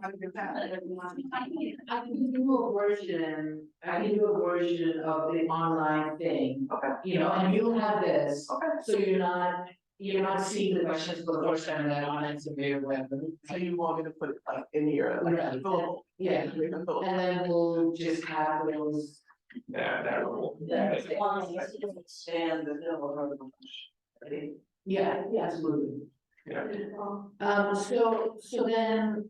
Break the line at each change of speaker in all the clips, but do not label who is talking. How does that?
I can do a version, I can do a version of the online thing.
Okay.
You know, and you'll have this,
Okay.
so you're not, you're not seeing the questions for the first time in that online survey or whatever.
So you want me to put it like in your, like,
Right.
envelope?
Yeah.
Your envelope.
And then we'll just have those.
That, that rule.
Yeah.
And the middle of the.
Yeah, yeah, absolutely.
Yeah.
Um, so, so then.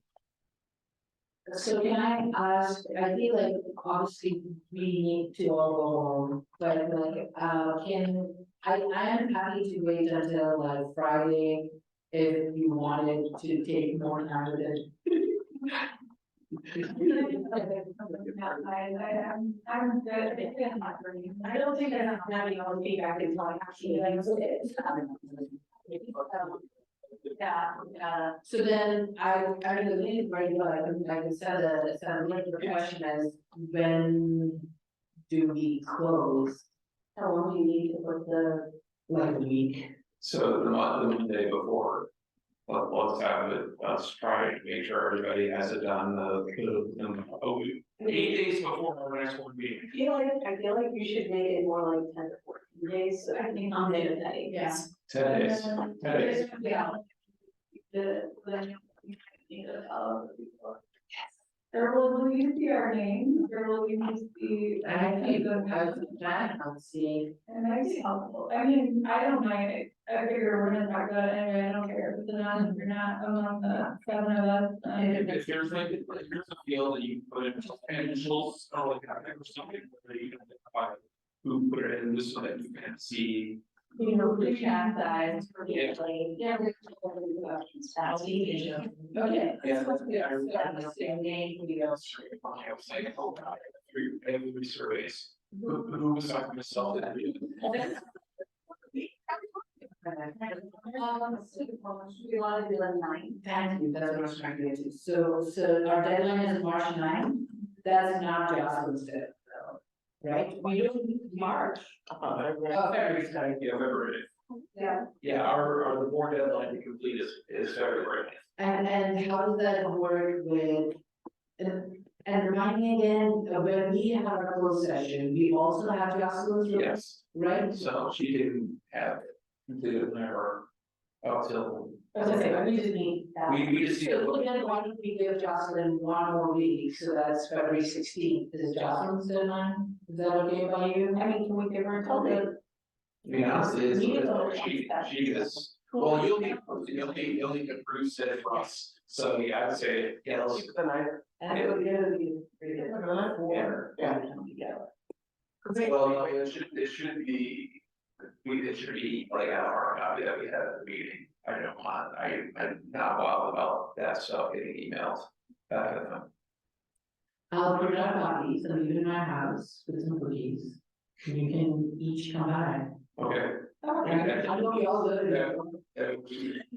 So can I ask, I feel like obviously we need to all go home, but like, uh, can, I, I am happy to wait until like Friday. If you wanted to take more time with it.
I, I, I'm, I'm good, I think I'm not ready. I don't think I'm having all the feedback is like actually like. um, Yeah, yeah.
uh, So then I, I don't know, maybe very well, I can, I can set a, set a link for um, the question as when do we close?
How long do you need to put the?
Like a week.
So the mon- the Monday before. Let, let's have it, let's try and make sure everybody has it done, uh, the, the, oh, we- eight days before our next board meeting.
I feel like, I feel like you should make it more like ten to fourteen days, so I think I'm there that day.
Yeah.
Ten days, ten days,
Yeah. The, the, you know, all of the people. There will at least be our name, there will at least be.
And I think I was planning on seeing,
And that's helpful, I mean, I don't mind, it. I figure we're gonna talk about it anyway, I don't care, but then I'm- you're not among the seven of us. um,
if there's like, if there's a field that you put in, and initials or like, I think or something, where you can identify. Who put it in this so that you can see,
You know, the chat size for
Yeah.
usually. Yeah. we're totally about that.
I'll see you. Okay.
Yeah.
So it's
Yeah.
got the same name, we go.
I was like, oh god, every, every surveys, who, who was talking to myself that we-
Um, so, um, should we wanna do a nine?
Thank you, that's what I was trying to get to, so, so our deadline is March 9th. that's not Jocelyn's day, though, right? We don't, March.
Uh,
Oh,
Every time, yeah, February.
Yeah.
Yeah, our, our the board deadline to complete is, is February.
And, and how does that work with, and, and remind me again, uh, when we have our closed session, we also have Jocelyn's room,
Yes,
right?
so she didn't have completed her up till,
Okay, we just need that.
we, we just need to
So
look.
then why don't we give Jocelyn one more week, so that's February sixteenth, is Jocelyn's deadline, is that okay by you?
I mean, can we give her until the?
I mean, honestly, it's,
We need to
it's-
look
she, she is, well, you'll need, you'll need, you'll need to prove it for us. So yeah, I would say, yeah, let's,
Keep the night.
And it would be,
keep the night warm.
yeah.
well, no, it should, it should be. We, it should be like a hard copy that we had at the meeting. I don't want, I, I'm not wild about that stuff getting emails. Uh,
I'll put out copies, I'll leave it in my house with some cookies, you can each come by.
okay.
I know we all live in-
Uh, we-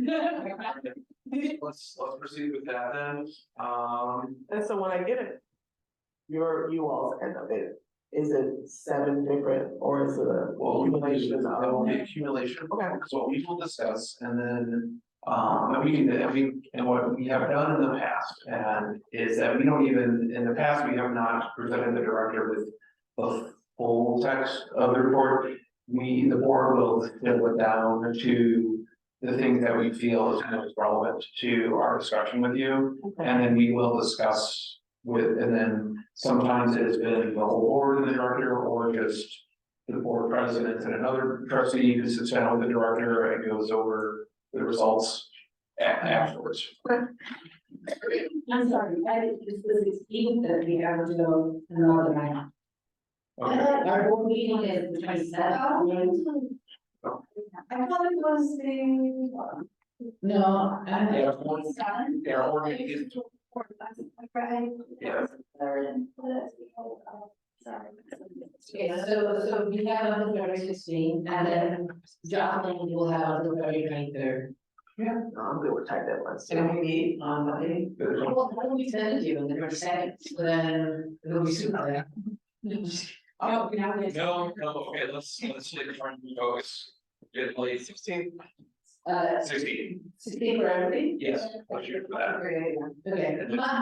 Let's, let's proceed with that then, um,
And so when I get it. Your, you all's end of it, is it seven different or is it a?
well, we will do,
accumulation
that will
of-
be uh, accumulation,
Okay.
because what we will discuss, and then. Um, and we, can- and we, and what we have done in the past, and is that we don't even, in the past, we have not presented the director with. The full text of the report, we, the board will distill it down to. The things that we feel is most relevant to our discussion with you.
Okay.
And then we will discuss with, and then sometimes it has been the whole board and the director, or just. The board president and another trustee who sits down with the director and goes over the results a- afterwards.
I'm sorry, I, this is the sixteenth that we have to go another night.
Okay,
Our board meeting is the twenty seventh.
Oh. I thought it was the.
No, I,
yeah, one-
Seven?
yeah, or it is-
Or that's right.
Yeah.
Third and fourth, uh, Sorry.
okay, so, so we have on the February sixteenth, and then Jocelyn will have on the February twenty third.
No, I'm good with tight deadlines.
we meet on Monday?
the-
Well, why don't we send it to you in the first second, so then it'll be sooner. Oh, we have this.
No, no, okay, let's, let's take a front focus. Get late sixteen,
Uh,
sixteen,
sixteen for everybody?
yes, let's shoot for that.
Okay,
And then-
Ma-